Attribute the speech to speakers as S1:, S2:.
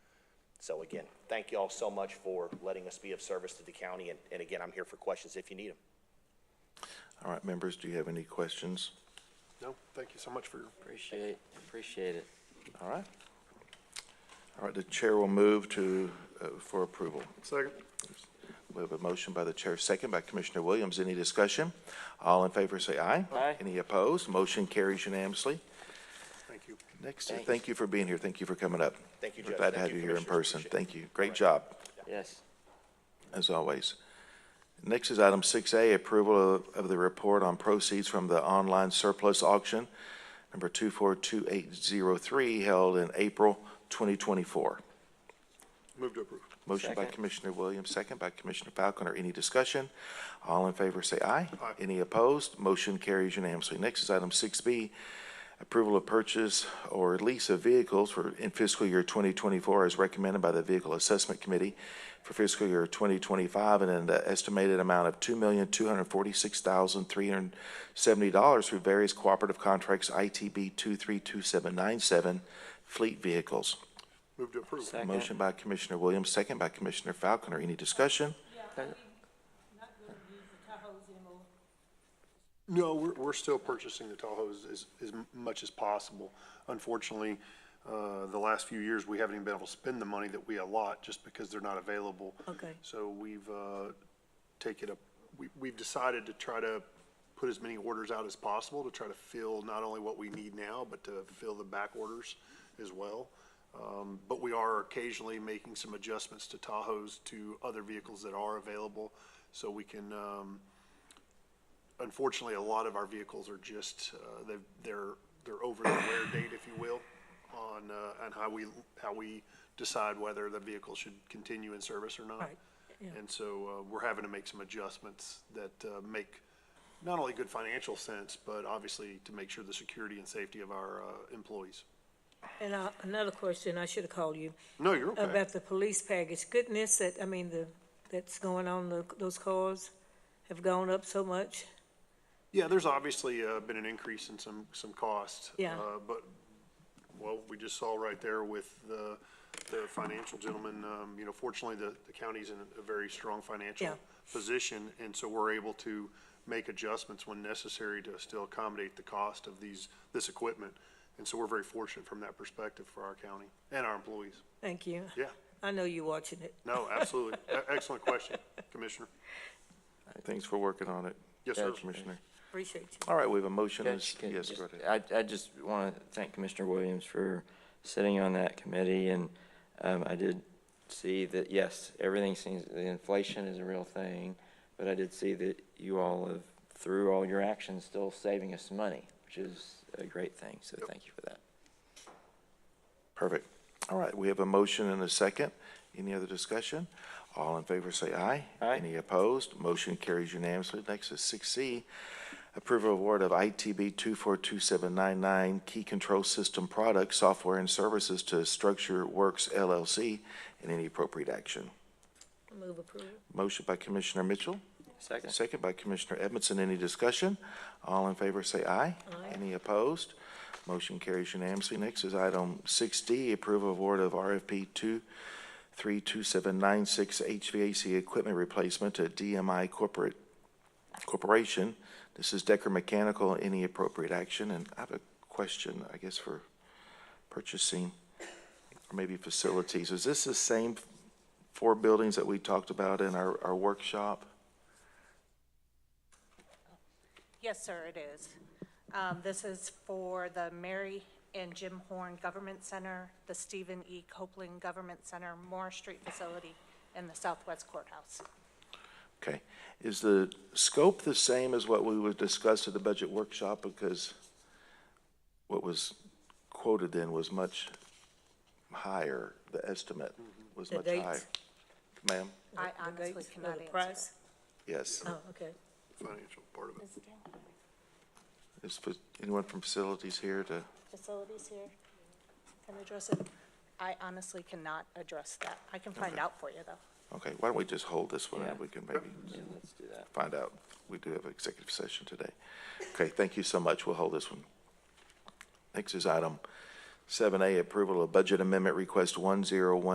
S1: So again, thank you all so much for letting us be of service to the county, and, and again, I'm here for questions if you need them.
S2: All right, members, do you have any questions?
S3: No, thank you so much for your
S4: Appreciate, appreciate it.
S2: All right. All right, the chair will move to, uh, for approval.
S3: second.
S2: We have a motion by the chair, second by Commissioner Williams. Any discussion? All in favor, say aye.
S4: Aye.
S2: Any opposed? Motion carries unanimously.
S3: Thank you.
S2: Next,
S4: Thanks.
S2: thank you for being here. Thank you for coming up.
S1: Thank you,
S2: We're
S1: Judge.
S2: Glad to
S1: Thank
S2: have
S1: you,
S2: you here in
S1: Commissioners.
S2: person.
S1: Appreciate it.
S2: Thank you. Great job,
S4: Yes.
S2: as always. Next is item six A, approval of, of the report on proceeds from the online surplus auction, number two four two eight zero three, held in April twenty twenty-four.
S3: Move to approve.
S2: Motion by
S4: Second.
S2: Commissioner Williams, second by Commissioner Falconer. Any discussion? All in favor, say aye.
S3: Aye.
S2: Any opposed? Motion carries unanimously. Next is item six B, approval of purchase or lease of vehicles for, in fiscal year twenty twenty-four as recommended by the Vehicle Assessment Committee for fiscal year twenty twenty-five and an estimated amount of two million, two hundred forty-six thousand, three hundred seventy dollars through various cooperative contracts, ITB two three two seven nine seven, fleet vehicles.
S3: Move to approve.
S4: Second.
S2: Motion by Commissioner Williams, second by Commissioner Falconer. Any discussion?
S5: Yeah, we not gonna use the Tahoes anymore.
S3: No, we're, we're still purchasing the Tahoes as, as much as possible. Unfortunately, uh, the last few years, we haven't even been able to spend the money that we allot just because they're not available.
S5: Okay.
S3: So we've, uh, taken up, we, we've decided to try to put as many orders out as possible to try to fill not only what we need now, but to fill the back orders as well. Um, but we are occasionally making some adjustments to Tahoes to other vehicles that are available so we can, um, unfortunately, a lot of our vehicles are just, uh, they've, they're, they're over the wear date, if you will, on, uh, on how we, how we decide whether the vehicle should continue in service or not.
S5: Right, yeah.
S3: And so, uh, we're having to make some adjustments that, uh, make not only good financial sense, but obviously to make sure the security and safety of our, uh, employees.
S5: And I, another question, I should have called you,
S3: No, you're okay.
S5: about the police package. Goodness, that, I mean, the, that's going on, the, those cars have gone up so much.
S3: Yeah, there's obviously, uh, been an increase in some, some costs.
S5: Yeah.
S3: Uh, but well, we just saw right there with the, the financial gentleman, um, you know, fortunately, the, the county's in a very strong financial
S5: Yeah.
S3: position, and so we're able to make adjustments when necessary to still accommodate the cost of these, this equipment. And so we're very fortunate from that perspective for our county and our employees.
S5: Thank you.
S3: Yeah,
S5: I know you're watching it.
S3: no, absolutely. E- Excellent question, Commissioner.
S2: Thanks for working on it.
S3: Yes, sir.
S2: Commissioner.
S5: Appreciate you.
S2: All right, we have a motion. and a s-
S4: Judge, can-
S2: Yes, go ahead.
S4: I, I just want to thank Commissioner Williams for sitting on that committee, and um, I did see that, yes, everything seems, the inflation is a real thing, but I did see that you all have, through all your actions, still saving us money, which is a great thing, so thank you for that.
S2: Perfect. All right, we have a motion and a second. Any other discussion? All in favor, say aye.
S4: Aye.
S2: Any opposed? Motion carries unanimously. Next is six C, approval award of ITB two four two seven nine nine Key Control System Products, Software and Services to Structure Works LLC, and any appropriate action.
S5: Move approval.
S2: Motion by Commissioner Mitchell.
S4: Second.
S2: Second by Commissioner Edmondson. Any discussion? All in favor, say aye.
S5: Aye.
S2: Any opposed? Motion carries unanimously. Next is item six D, approval of award of RFP two three two seven nine six HVAC equipment replacement to DMI Corporate Corporation. This is Decker Mechanical. Any appropriate action? And I have a question, I guess, for purchasing or maybe facilities. Is this the same four buildings that we talked about in our, our workshop?
S6: Yes, sir, it is. Um, This is for the Mary and Jim Horn Government Center, the Stephen E. Copeland Government Center, Moore Street Facility, and the Southwest Courthouse.
S2: Okay. Is the scope the same as what we would discuss at the budget workshop? Because what was quoted then was much higher, the estimate was
S5: The
S2: much
S5: dates?
S2: higher. Ma'am?
S6: I
S5: The
S6: honestly
S5: dates, or
S6: cannot
S5: The
S6: answer.
S5: uh, price?
S2: Yes.
S5: Oh, okay.
S3: Financial part of it.
S2: Is fa- anyone from facilities here to,
S6: Facilities here, can address it? I honestly cannot address that. I can find out for you, though.
S2: okay, why don't we just hold this one and
S4: Yeah.
S2: we can maybe
S4: Yeah, let's do that.
S2: find out. We do have an executive session today. Okay, thank you so much. We'll hold this one. Next is item seven A, approval of budget amendment request one zero one